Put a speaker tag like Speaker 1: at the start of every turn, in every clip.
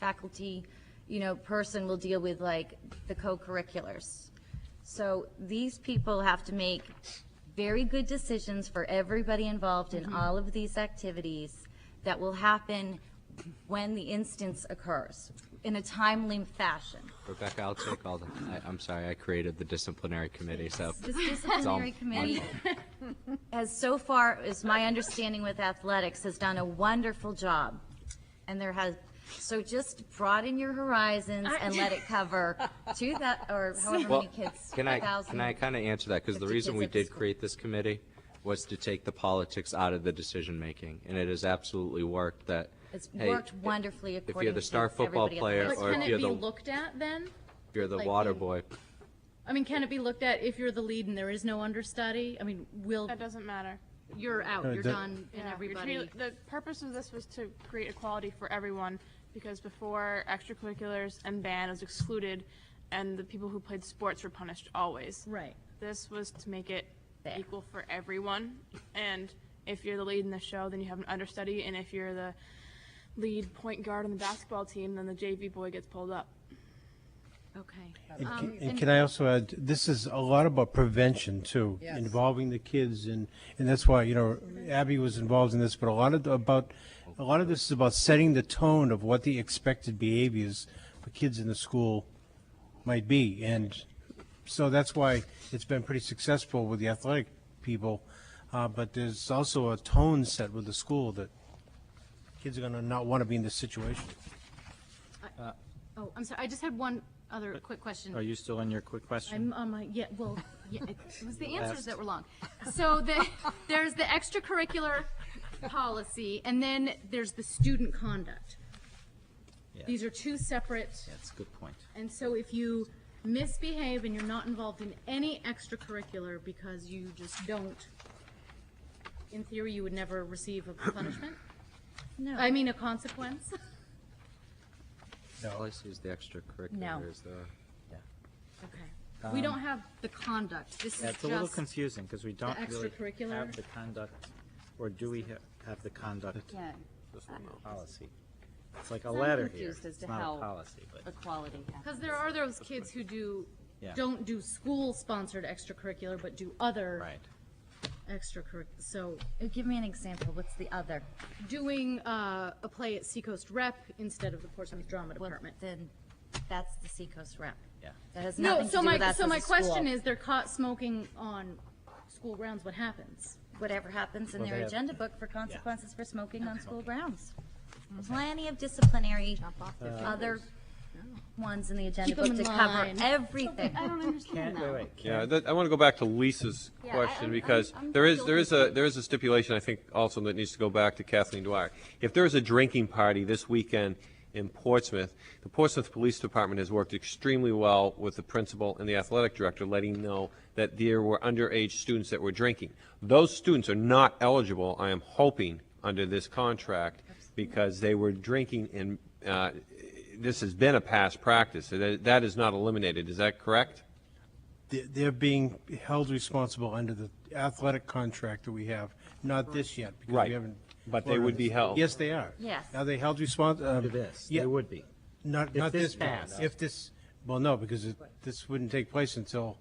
Speaker 1: faculty, you know, person will deal with like the co-curriculars. So these people have to make very good decisions for everybody involved in all of these activities that will happen when the instance occurs in a timely fashion.
Speaker 2: Rebecca, I'll take all the, I, I'm sorry, I created the disciplinary committee, so.
Speaker 1: This
Speaker 2: it's all
Speaker 1: disciplinary
Speaker 2: on
Speaker 1: committee
Speaker 2: me.
Speaker 1: has so far, is my understanding with athletics, has done a wonderful job. And there has, so just broaden your horizons and let it cover two that, or however
Speaker 2: Well,
Speaker 1: many kids.
Speaker 2: can I,
Speaker 1: 1,000.
Speaker 2: can I kind of answer that? Because the
Speaker 1: 50
Speaker 2: reason
Speaker 1: kids
Speaker 2: we
Speaker 1: at the
Speaker 2: did
Speaker 1: school.
Speaker 2: create this committee was to take the politics out of the decision-making, and it has absolutely worked that.
Speaker 1: It's
Speaker 2: hey,
Speaker 1: worked wonderfully
Speaker 2: if
Speaker 1: according
Speaker 2: you're the
Speaker 1: to
Speaker 2: star football
Speaker 1: everybody at the
Speaker 2: player,
Speaker 1: high
Speaker 3: But
Speaker 1: school.
Speaker 2: or
Speaker 3: can
Speaker 2: if
Speaker 3: it
Speaker 2: you're
Speaker 3: be
Speaker 2: the,
Speaker 3: looked at then?
Speaker 2: if you're the
Speaker 3: like
Speaker 2: water
Speaker 3: the-
Speaker 2: boy,
Speaker 3: I mean, can it be looked at if you're the lead and there is no understudy? I mean, will,
Speaker 4: That doesn't matter.
Speaker 3: you're out,
Speaker 5: Uh,
Speaker 3: you're
Speaker 5: that-
Speaker 3: done, and
Speaker 4: Yeah, you're
Speaker 3: everybody.
Speaker 4: treat- The purpose of this was to create equality for everyone, because before extracurriculars and band was excluded, and the people who played sports were punished always.
Speaker 3: Right.
Speaker 4: This was to make it
Speaker 1: Fair.
Speaker 4: equal for everyone, and if you're the lead in the show, then you have an understudy, and if you're the lead point guard on the basketball team, then the JV boy gets pulled up.
Speaker 3: Okay.
Speaker 5: And ca- And can I also add, this is a lot about prevention too, involving the kids and, and that's why, you know, Abby was involved in this, but a lot of, the- about, a lot of this is about setting the tone of what the expected behaviors for kids in the school might be. And so that's why it's been pretty successful with the athletic people. Uh, but there's also a tone set with the school that kids are gonna not wanna be in this situation.
Speaker 3: Oh, I'm sorry, I just had one other quick
Speaker 6: Are
Speaker 3: question.
Speaker 6: you still on your quick
Speaker 3: I'm
Speaker 6: question?
Speaker 3: on my, yeah, well, yeah, it was the answers that were long. So the, there's the extracurricular policy, and then there's the student conduct.
Speaker 6: Yeah.
Speaker 3: These are two separate.
Speaker 6: That's a good point.
Speaker 3: And so if you misbehave and you're not involved in any extracurricular because you just don't, in theory, you would never receive a punishment? No. I mean, a consequence?
Speaker 2: all I see is the extracurricular is the.
Speaker 3: Okay. We don't have the conduct. This
Speaker 6: Um, Yeah,
Speaker 3: is
Speaker 6: it's a little
Speaker 3: just,
Speaker 6: confusing because we don't really
Speaker 3: extracurricular-
Speaker 6: have the conduct, or do we ha- have the conduct
Speaker 7: Yeah,
Speaker 6: policy? It's like a
Speaker 7: I'm
Speaker 6: letter here.
Speaker 7: confused as
Speaker 6: It's
Speaker 7: to
Speaker 6: not
Speaker 7: how-
Speaker 6: a policy, but
Speaker 7: equality.
Speaker 3: because there are those kids who do,
Speaker 6: Yeah.
Speaker 3: don't do school-sponsored extracurricular, but do other
Speaker 6: right.
Speaker 3: extracurricular. So
Speaker 1: uh, Give me an example, what's the other?
Speaker 3: doing uh, a play at Seacoast Rep instead of the Portsmouth Drama
Speaker 1: Well,
Speaker 3: Department.
Speaker 1: Then, that's the Seacoast rep.
Speaker 6: Yeah.
Speaker 1: That has
Speaker 3: No,
Speaker 1: nothing to
Speaker 3: so
Speaker 1: do with
Speaker 3: my,
Speaker 1: us
Speaker 3: so
Speaker 1: as
Speaker 3: my
Speaker 1: a school.
Speaker 3: question is, they're caught smoking on school grounds, what happens?
Speaker 1: whatever happens in
Speaker 6: Well,
Speaker 1: their
Speaker 6: they have-
Speaker 1: agenda book for consequences for smoking on school grounds.
Speaker 7: Mm-hmm.
Speaker 1: Plenty of disciplinary,
Speaker 6: Uh,
Speaker 1: other ones in the agenda
Speaker 3: Keep 'em
Speaker 1: book to
Speaker 3: in
Speaker 1: cover
Speaker 3: line.
Speaker 1: everything.
Speaker 6: Can't, wait, wait,
Speaker 8: Yeah, that, I want to go back to Lisa's
Speaker 1: Yeah, I-
Speaker 8: question
Speaker 1: I'm-
Speaker 8: because
Speaker 1: I'm- I'm
Speaker 8: there is,
Speaker 1: still
Speaker 8: there is a, there is a stipulation, I think, also that needs to go back to Kathleen Dwyer. If there is a drinking party this weekend in Portsmouth, the Portsmouth Police Department has worked extremely well with the principal and the athletic director, letting know that there were underage students that were drinking. Those students are not eligible, I am hoping, under this contract because they were drinking and, uh, this has been a past practice. So That, that is not eliminated. Is that correct?
Speaker 5: They're- They're being held responsible under the athletic contract that we have, not this yet. because we
Speaker 8: Right.
Speaker 5: haven't
Speaker 8: But they
Speaker 5: voted on
Speaker 8: would be
Speaker 5: this.
Speaker 8: held.
Speaker 5: Yes, they are.
Speaker 1: Yes.
Speaker 5: Are they held respons, um.
Speaker 6: do this,
Speaker 5: yeah,
Speaker 6: they would be.
Speaker 5: Not,
Speaker 6: if
Speaker 5: not
Speaker 6: this
Speaker 5: this pass.
Speaker 6: passed.
Speaker 5: If this, well, no, because it, this wouldn't take place until,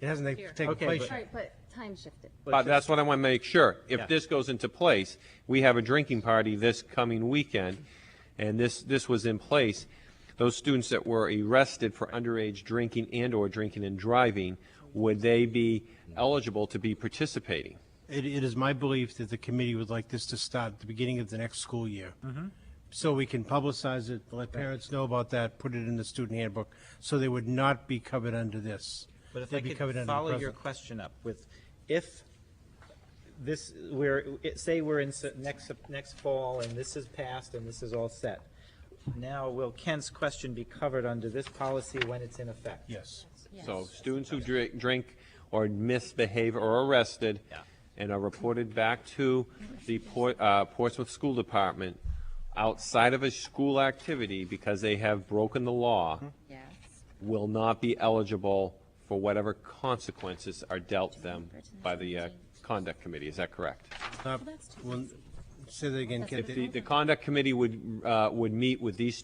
Speaker 5: it hasn't ta- taken
Speaker 6: Okay,
Speaker 5: place
Speaker 6: but-
Speaker 5: yet.
Speaker 7: Right, but time shifted.
Speaker 8: But that's what I want to make sure.
Speaker 6: Yeah.
Speaker 8: If this goes into place, we have a drinking party this coming weekend, and this, this was in place. Those students that were arrested for underage drinking and/or drinking and driving, would they be eligible to be participating?
Speaker 5: It, it is my belief that the committee would like this to start at the beginning of the next school year.
Speaker 8: Mm-hmm.
Speaker 5: So we can publicize it, let parents know about that, put it in the student handbook, so they would not be covered under this.
Speaker 6: But if
Speaker 5: They'd
Speaker 6: I
Speaker 5: be covered
Speaker 6: could
Speaker 5: under the
Speaker 6: follow your
Speaker 5: present.
Speaker 6: question up with, if this, we're, it- say we're in s- next, Sep- next fall, and this is passed, and this is all set. Now, will Kent's question be covered under this policy when it's in effect?
Speaker 5: Yes.
Speaker 8: So students who drink, drink or misbehave or are arrested
Speaker 6: Yeah.
Speaker 8: and are reported back to the Port, uh, Portsmouth School Department outside of a school activity because they have broken the law
Speaker 7: Yes.
Speaker 8: will not be eligible for whatever consequences are dealt them by the uh, conduct committee. Is that correct?
Speaker 5: Not- well, Say that again, Kent.
Speaker 8: The, the conduct committee would, uh, would meet with these